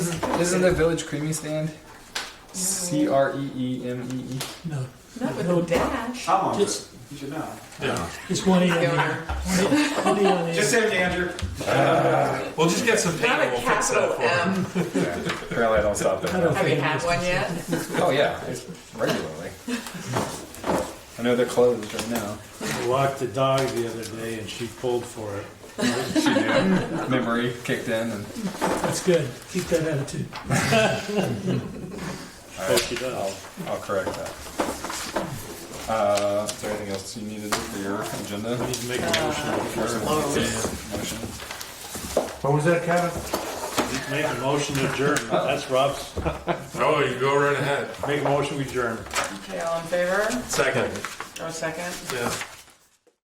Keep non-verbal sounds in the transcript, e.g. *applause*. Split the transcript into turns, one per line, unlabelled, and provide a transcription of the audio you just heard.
Isn't the village creamy stand? C R E E M E E.
No,
Not with no dash.
How
Oh,
long is
Just-
it? You should know.
Yeah.
it's one E on the
Donor.
one E on the
Just
end.
say it, Andrew.
We'll just get some paint
Not
and
a
we'll fix
capital
that for him.
M.
Yeah. Apparently, I don't stop
I
there.
don't
Have
*laughs*
you
think
had
it's-
one yet?
Oh yeah, it's regularly. I know they're closed right now.
I walked the dog the other day and she pulled for it.
She did. Memory kicked in, and
That's good. Keep that attitude.
all
Oh,
right,
she does.
I'll, I'll correct that. Uh, is there anything else you needed for your agenda?
I need to make a motion.
Motion.
What was that, Kevin?
Make a motion to adjourn. That's Rob's.
Oh, you go right ahead.
Make a motion, we adjourn.
Okay, all in favor?
Second.
Or second?
Yeah.